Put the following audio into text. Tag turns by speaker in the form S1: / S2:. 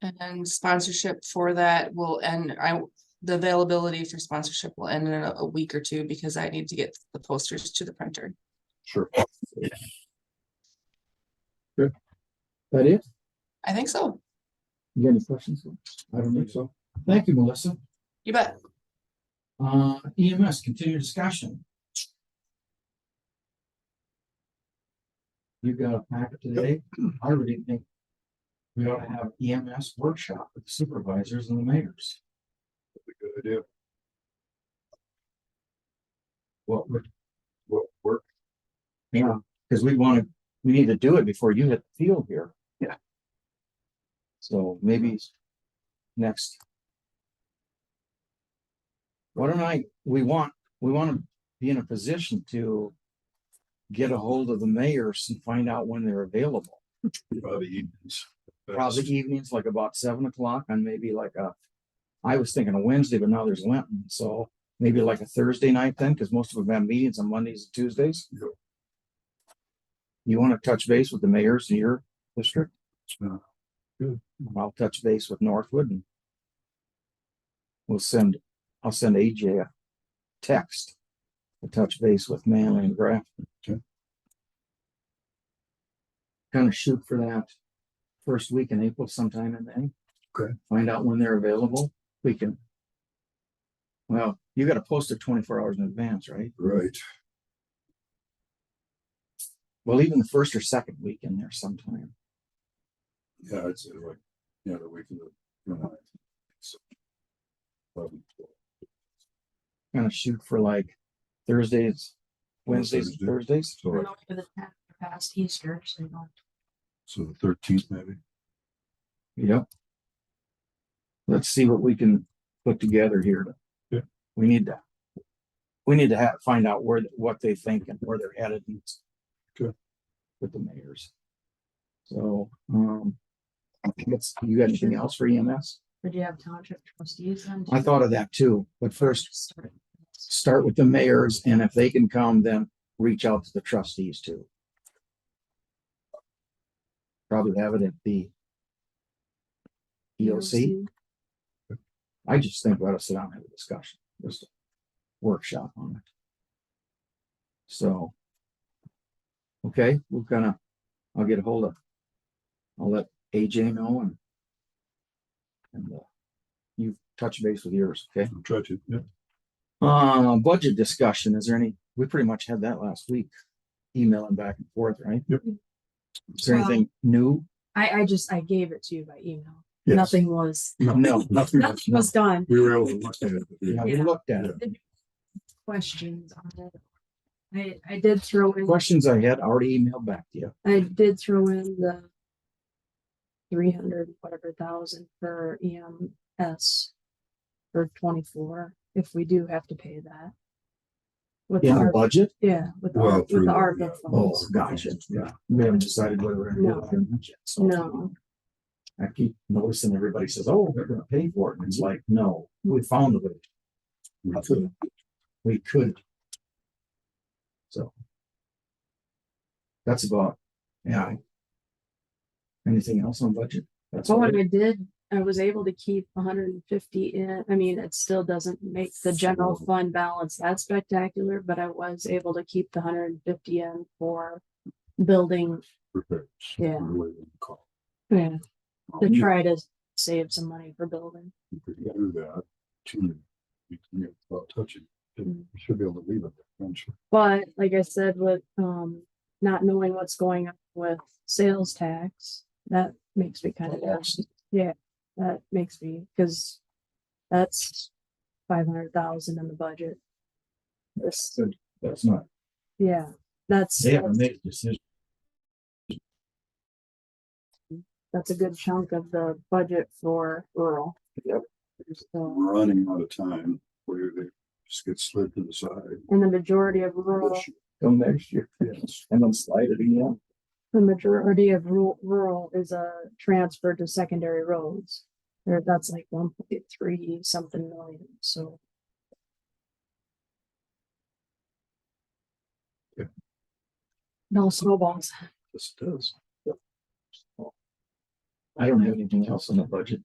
S1: And sponsorship for that will end, I, the availability for sponsorship will end in a a week or two because I need to get the posters to the printer.
S2: Sure.
S3: That it?
S1: I think so.
S3: You got any questions? I don't think so. Thank you, Melissa.
S1: You bet.
S3: Uh, EMS, continue discussion. You got a packet today. I really think we ought to have EMS workshop with supervisors and the mayors.
S2: Good idea.
S3: What would,
S2: What work?
S3: yeah, because we want to, we need to do it before you hit the field here.
S2: Yeah.
S3: So maybe next. Why don't I, we want, we want to be in a position to get a hold of the mayors and find out when they're available.
S2: Probably evenings.
S3: Probably evenings, like about seven o'clock and maybe like a, I was thinking a Wednesday, but now there's Lenten, so maybe like a Thursday night then, because most of them have meetings on Mondays and Tuesdays.
S2: Yep.
S3: You want to touch base with the mayors in your district?
S2: Yeah. Good.
S3: I'll touch base with Northwood and we'll send, I'll send AJ a text to touch base with Manley and Grafton.
S2: Okay.
S3: Kind of shoot for that first week in April sometime in May.
S2: Okay.
S3: Find out when they're available. We can. Well, you gotta post it twenty-four hours in advance, right?
S2: Right,
S3: Well, even the first or second week in there sometime.
S2: yeah, it's uh, like, yeah, the week of the. the ninth. So, eleven, twelve.
S3: Kind of shoot for like Thursdays, Wednesdays, and
S2: Thursday.
S3: Thursdays.
S2: So, like,
S4: For the pa- past Easter, so you don't.
S2: so the thirteenth maybe,
S3: Yep. Let's see what we can put together here. to-
S2: Yeah.
S3: We need to. We need to have, find out where, th- what they think and where they're headed. and s-
S2: Good.
S3: With the mayors. So, um. It's, you got anything else for E EMS?
S4: Did you have township trustees then?
S3: I thought of that too, but first
S4: Just started.
S3: start with the mayors and if they can come, then reach out to the trustees too. Probably have it at the. E
S4: E
S3: EOC. I just think we ought to sit down and have a discussion, just a workshop on it. So. Okay, we're gonna, I'll get a hold of. I'll let AJ know and. And uh, you touch base with yours, okay?
S2: I'll try to, yeah.
S3: Uh, budget discussion, is there any, we pretty much had that last week, emailing back and forth, right?
S2: Yep.
S3: Is there
S4: Well-
S3: anything new?
S4: I, I just, I gave it to you by email.
S2: Yes.
S4: Nothing was,
S3: No.
S2: Nothing, else,
S4: nothing
S2: no.
S4: was done.
S2: we were able to look at it.
S3: Yeah, we
S4: Yeah.
S3: looked at it.
S4: Questions on it. I, I did throw in,
S3: Questions I had already emailed back to you.
S4: I did throw in the three hundred whatever thousand for EMS for twenty-four, if we do have to pay that. With the
S3: In the
S4: ARPA
S3: budget?
S4: yeah, with the
S2: Well,
S4: ARPA with the
S2: through the- yeah.
S4: ARPA
S3: Oh,
S4: funds.
S3: gotcha, yeah, we haven't decided whether we're gonna do it or not yet, so.
S4: No.
S3: I keep noticing everybody says, oh, they're gonna pay for it, and it's like, no, we found a way,
S2: Yeah.
S3: we could. So. That's about, yeah. Anything else on budget? That's
S4: Oh,
S3: all.
S4: and I did, I was able to keep hundred and fifty in, I mean, it still doesn't make the general
S2: So-
S4: fund balance that spectacular, but I was able to keep the hundred and fifty in for building,
S2: Perfect.
S4: Yeah.
S2: We're waiting to call.
S4: yeah, to
S2: You
S4: try to save some money for building.
S2: could Do that. to- you can- Without touching, it. you should be able to leave it there. don't you?
S4: But like I said, with, um, not knowing what's going on with sales tax, that makes me kind of nervous. Yeah, that makes me, because that's five hundred thousand in the budget. This,
S3: That's not,
S4: yeah, that's.
S3: they haven't
S4: that's-
S3: made a decision,
S4: that's a good chunk of the budget for rural.
S3: Yep.
S4: So,
S2: We're running out of time, where they just get slid to the side.
S4: and the majority of rural,
S3: come next year,
S2: Yes.
S3: and then slide it again.
S4: the majority of rural, rural is a transfer to secondary roads. There, that's like one point three something million, so.
S2: Yeah.
S4: No snowballs.
S2: Yes, it does.
S3: I don't have anything else on the budget.